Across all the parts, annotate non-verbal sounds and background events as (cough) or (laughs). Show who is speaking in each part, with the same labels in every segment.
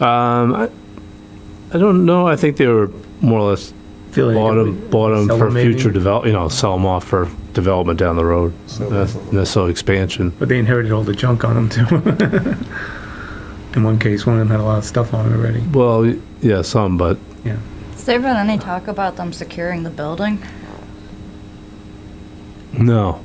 Speaker 1: Um, I, I don't know. I think they were more or less
Speaker 2: Feeling
Speaker 1: bought
Speaker 2: like
Speaker 1: them, bought
Speaker 2: sell 'em
Speaker 1: for
Speaker 2: maybe?
Speaker 1: future develop, you know, sell them off for development down the road.
Speaker 3: So-
Speaker 1: That's necessarily expansion.
Speaker 2: But they inherited all the junk on them too. (laughs) In one case, one of them had a lot of stuff on it already.
Speaker 1: Well, yeah, some, but
Speaker 4: Has there been any talk about them securing the building?
Speaker 1: no.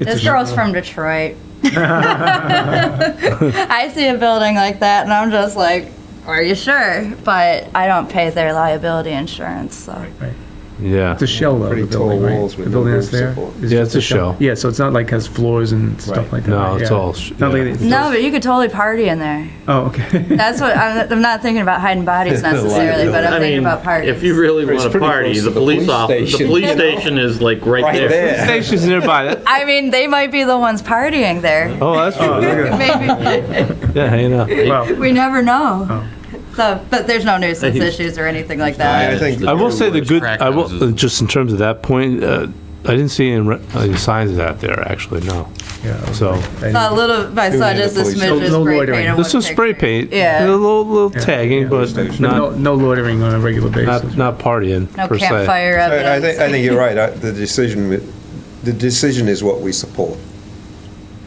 Speaker 2: It's
Speaker 4: This
Speaker 2: a-
Speaker 4: girl's from
Speaker 5: (laughs)
Speaker 4: Detroit. (laughs) I see a building like that and I'm just like, are you sure? But I don't pay their liability insurance, so.
Speaker 1: Yeah.
Speaker 2: It's a shell of the
Speaker 3: Pretty tall
Speaker 2: building, right?
Speaker 3: walls with
Speaker 2: The
Speaker 3: no
Speaker 2: building
Speaker 3: roof
Speaker 2: that's there.
Speaker 3: support.
Speaker 2: is
Speaker 1: Yeah,
Speaker 2: just
Speaker 1: it's a shell.
Speaker 2: Yeah, so it's not like has floors and stuff
Speaker 3: Right.
Speaker 2: like that.
Speaker 1: No,
Speaker 2: right?
Speaker 1: it's
Speaker 2: Yeah.
Speaker 1: all sh-
Speaker 2: Not like
Speaker 1: yeah.
Speaker 2: it's
Speaker 4: No,
Speaker 2: those-
Speaker 4: but you could totally party in there.
Speaker 2: Oh,
Speaker 4: (laughs)
Speaker 2: okay. (laughs)
Speaker 4: That's what, I'm, I'm not thinking about hiding
Speaker 5: (laughs)
Speaker 4: bodies necessarily, but
Speaker 5: I
Speaker 4: I'm thinking
Speaker 5: mean,
Speaker 4: about parties.
Speaker 5: If you really
Speaker 3: It's
Speaker 5: want to
Speaker 3: pretty
Speaker 5: party,
Speaker 3: close
Speaker 5: the
Speaker 3: to the
Speaker 5: police
Speaker 3: police
Speaker 5: office, the
Speaker 3: station.
Speaker 5: police station is like right
Speaker 3: Right
Speaker 5: there.
Speaker 3: there.
Speaker 1: Station's nearby. That-
Speaker 4: I mean, they might be the ones partying
Speaker 5: (laughs)
Speaker 4: there.
Speaker 1: (laughs) Oh, that's true.
Speaker 4: (laughs) Maybe,
Speaker 1: Yeah, hanging out.
Speaker 2: Wow.
Speaker 4: we never know.
Speaker 2: Oh.
Speaker 4: So, but there's no nuisance
Speaker 5: Hey.
Speaker 4: issues or anything like
Speaker 3: I
Speaker 4: that.
Speaker 3: think
Speaker 1: I will
Speaker 5: Two
Speaker 1: say the
Speaker 5: words,
Speaker 1: good,
Speaker 5: crack
Speaker 1: I will,
Speaker 5: houses.
Speaker 1: just in terms of that point, uh, I didn't see any, re- any signs of that there, actually, no.
Speaker 2: Yeah.
Speaker 1: So,
Speaker 4: Saw a little, I saw
Speaker 3: Doing
Speaker 4: just a
Speaker 3: the police.
Speaker 4: smidge of
Speaker 2: No- no
Speaker 4: spray
Speaker 2: loitering.
Speaker 4: paint. on
Speaker 1: there's
Speaker 4: one
Speaker 1: some spray
Speaker 4: picture.
Speaker 1: paint. uh, A
Speaker 4: Yeah,
Speaker 1: little, little
Speaker 2: Yeah,
Speaker 1: tagging,
Speaker 2: yeah.
Speaker 1: but
Speaker 3: But
Speaker 2: No,
Speaker 1: not,
Speaker 2: no loitering on a regular
Speaker 1: not,
Speaker 2: basis.
Speaker 1: not partying,
Speaker 4: no
Speaker 1: per se.
Speaker 4: campfire
Speaker 3: I I think, I
Speaker 4: evidence.
Speaker 3: think you're right. I- The decision, wi- the decision is what we support.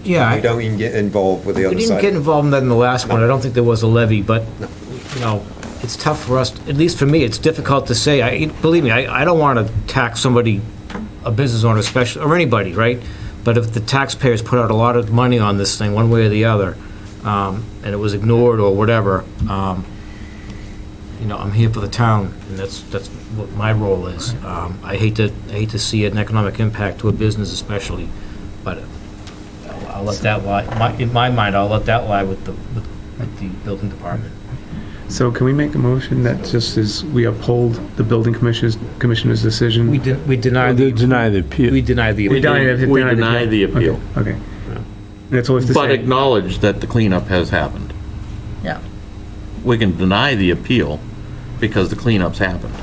Speaker 6: Yeah,
Speaker 3: We
Speaker 6: I-
Speaker 3: don't even get involved with the
Speaker 6: we
Speaker 3: other
Speaker 6: didn't get
Speaker 3: side.
Speaker 6: involved in that in the last one. I don't think there was a levy, but, you know, it's tough for us, at least for me, it's difficult to say. I, believe me, I, I don't want to tax somebody, a business owner especially, or anybody, right? But if the taxpayers put out a lot of money on this thing, one way or the other, um, and it was ignored or whatever, um, you know, I'm here for the town, and that's, that's what my role is. Um, I hate to, I hate to see an economic impact to a business especially, but I'll- I'll let that lie, my, in my mind, I'll let that lie with the, with with the building department.
Speaker 2: So can we make a motion that just is, we uphold the building commissioner's, commissioner's decision?
Speaker 6: We de- we deny,
Speaker 1: I
Speaker 6: the-
Speaker 1: did deny the appeal.
Speaker 6: we deny the.
Speaker 2: We deny it.
Speaker 5: We
Speaker 2: it,
Speaker 5: deny the
Speaker 2: okay,
Speaker 5: appeal.
Speaker 2: Okay. That's all we have to
Speaker 5: But
Speaker 2: say.
Speaker 5: acknowledge that the cleanup has happened.
Speaker 4: Yeah.
Speaker 5: We can deny the appeal because the cleanup's happened.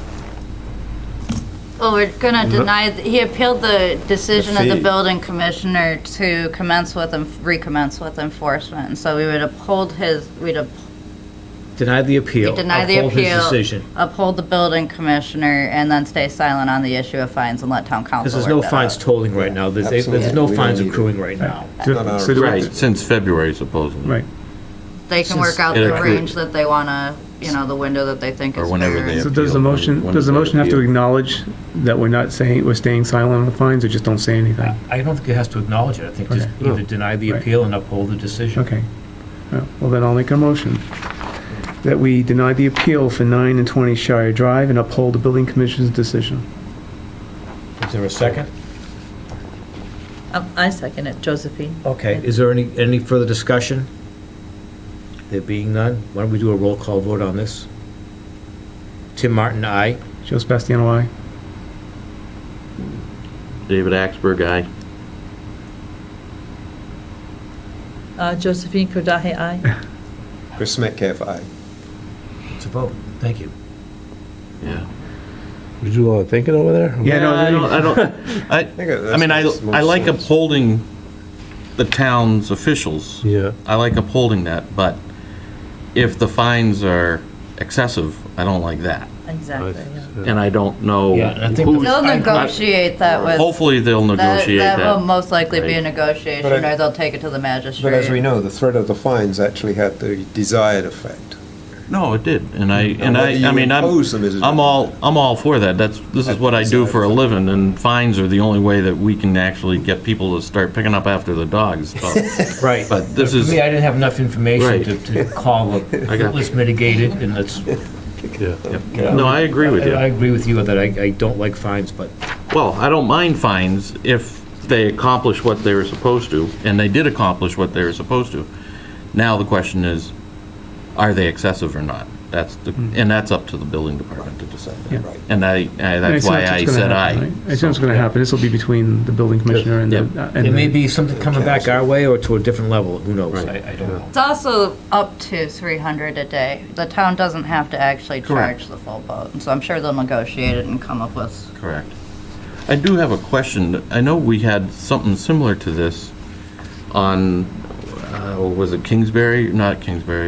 Speaker 4: Well, Oh, we're gonna deny, th- he appealed the decision of
Speaker 3: The
Speaker 4: the
Speaker 3: fee.
Speaker 4: building commissioner to commence with and recommence with enforcement. And so we would uphold his, we'd up-
Speaker 6: Deny the appeal.
Speaker 4: We deny the
Speaker 6: uphold his
Speaker 4: appeal.
Speaker 6: decision.
Speaker 4: uphold the building commissioner and then stay silent on the issue of fines and let town
Speaker 6: Because
Speaker 4: council
Speaker 6: there's
Speaker 4: work
Speaker 6: no
Speaker 4: that
Speaker 6: fines
Speaker 4: out.
Speaker 6: tolling right now, there's,
Speaker 3: Absolutely.
Speaker 6: there's no
Speaker 3: We don't
Speaker 6: fines
Speaker 3: need it.
Speaker 6: accruing right now.
Speaker 2: So- so do we-
Speaker 5: Right, since February supposedly.
Speaker 2: Right.
Speaker 4: They can work out
Speaker 5: It
Speaker 4: the
Speaker 5: accrued.
Speaker 4: range that they wanna, you know, the window that they think
Speaker 5: Or
Speaker 4: is
Speaker 5: whenever
Speaker 4: fair.
Speaker 5: they-
Speaker 2: So does the motion, does the motion have to acknowledge that we're not saying, we're staying silent on the fines, or just don't say anything?
Speaker 6: I don't think it has to acknowledge it, I think just
Speaker 2: Okay.
Speaker 6: either deny the
Speaker 2: Right.
Speaker 6: appeal and uphold the decision.
Speaker 2: Okay. Uh, Well, then I'll make a motion that we deny the appeal for 9 and 20 Shire Drive and uphold the building commission's decision.
Speaker 6: Is there a second?
Speaker 7: Um, I second it, Josephine.
Speaker 6: Okay, is there any, any further discussion? There being none, why don't we do a roll call vote on this? Tim Martin, aye.
Speaker 2: Joe Sebastiano, aye?
Speaker 5: David Axberg, aye.
Speaker 7: Uh, Josephine Kordahay,
Speaker 4: (laughs)
Speaker 7: aye.
Speaker 3: Chris Metcalf, aye.
Speaker 6: It's a vote, thank you.
Speaker 5: Yeah.
Speaker 1: Did you do a lot of thinking over there?
Speaker 2: Yeah, no,
Speaker 5: I
Speaker 2: there you
Speaker 5: don't,
Speaker 2: (laughs)
Speaker 5: I don't, I,
Speaker 3: think that's
Speaker 5: I mean, I,
Speaker 3: most-
Speaker 5: I like
Speaker 3: most-
Speaker 5: upholding the town's officials.
Speaker 1: Yeah.
Speaker 5: I like upholding that, but if the fines are excessive, I don't like that.
Speaker 7: Exactly, yeah.
Speaker 5: And I don't know
Speaker 6: Yeah, and I think
Speaker 5: who's,
Speaker 4: They'll negotiate that with.
Speaker 5: hopefully they'll
Speaker 4: That,
Speaker 5: negotiate
Speaker 4: that will
Speaker 5: that.
Speaker 4: most likely be a
Speaker 5: right.
Speaker 4: negotiation,
Speaker 3: But I-
Speaker 4: or they'll take it to the magistrate.
Speaker 3: But as we know, the threat of the fines actually had the desired effect.
Speaker 5: No, it did, and I, and
Speaker 3: whether you
Speaker 5: I, I mean, I'm,
Speaker 3: impose them is a
Speaker 5: I'm all, I'm all for that, that's, this is what I do for a living, and fines are the only way that we can actually get people to start picking up after the dogs, but,
Speaker 6: Right.
Speaker 5: but this
Speaker 6: For
Speaker 5: is,
Speaker 6: me, I didn't have enough information
Speaker 5: Right.
Speaker 6: to, to call,
Speaker 5: (laughs)
Speaker 6: a-
Speaker 5: I got-
Speaker 6: let's mitigate it, and let's,
Speaker 1: Yeah.
Speaker 5: no, I agree with
Speaker 6: I
Speaker 5: you.
Speaker 6: agree with you that I, I don't like fines, but
Speaker 5: Well, I don't mind fines if they accomplish what they were supposed to, and they did accomplish what they were supposed to. Now the question is, are they excessive or not? That's the,
Speaker 2: Hmm.
Speaker 5: and that's up to the building department to decide that.
Speaker 3: Right.
Speaker 5: And I, I,
Speaker 2: And
Speaker 5: that's
Speaker 2: assume
Speaker 5: why
Speaker 2: what's
Speaker 5: I
Speaker 2: gonna
Speaker 5: said
Speaker 2: happen,
Speaker 5: I.
Speaker 2: right? I assume it's going to happen. This will be between the building commissioner and the.
Speaker 5: Yep.
Speaker 2: uh, and
Speaker 6: it may
Speaker 2: the-
Speaker 6: be something coming back our way or to a different level, who knows? I, I don't know.
Speaker 4: It's also up to three hundred a day. The town doesn't have to actually
Speaker 5: Correct.
Speaker 4: charge the full boat, and so I'm sure they'll negotiate it and come up with.
Speaker 5: Correct. I do have a question. I know we had something similar to this on, uh, was it Kingsbury? Not Kingsbury,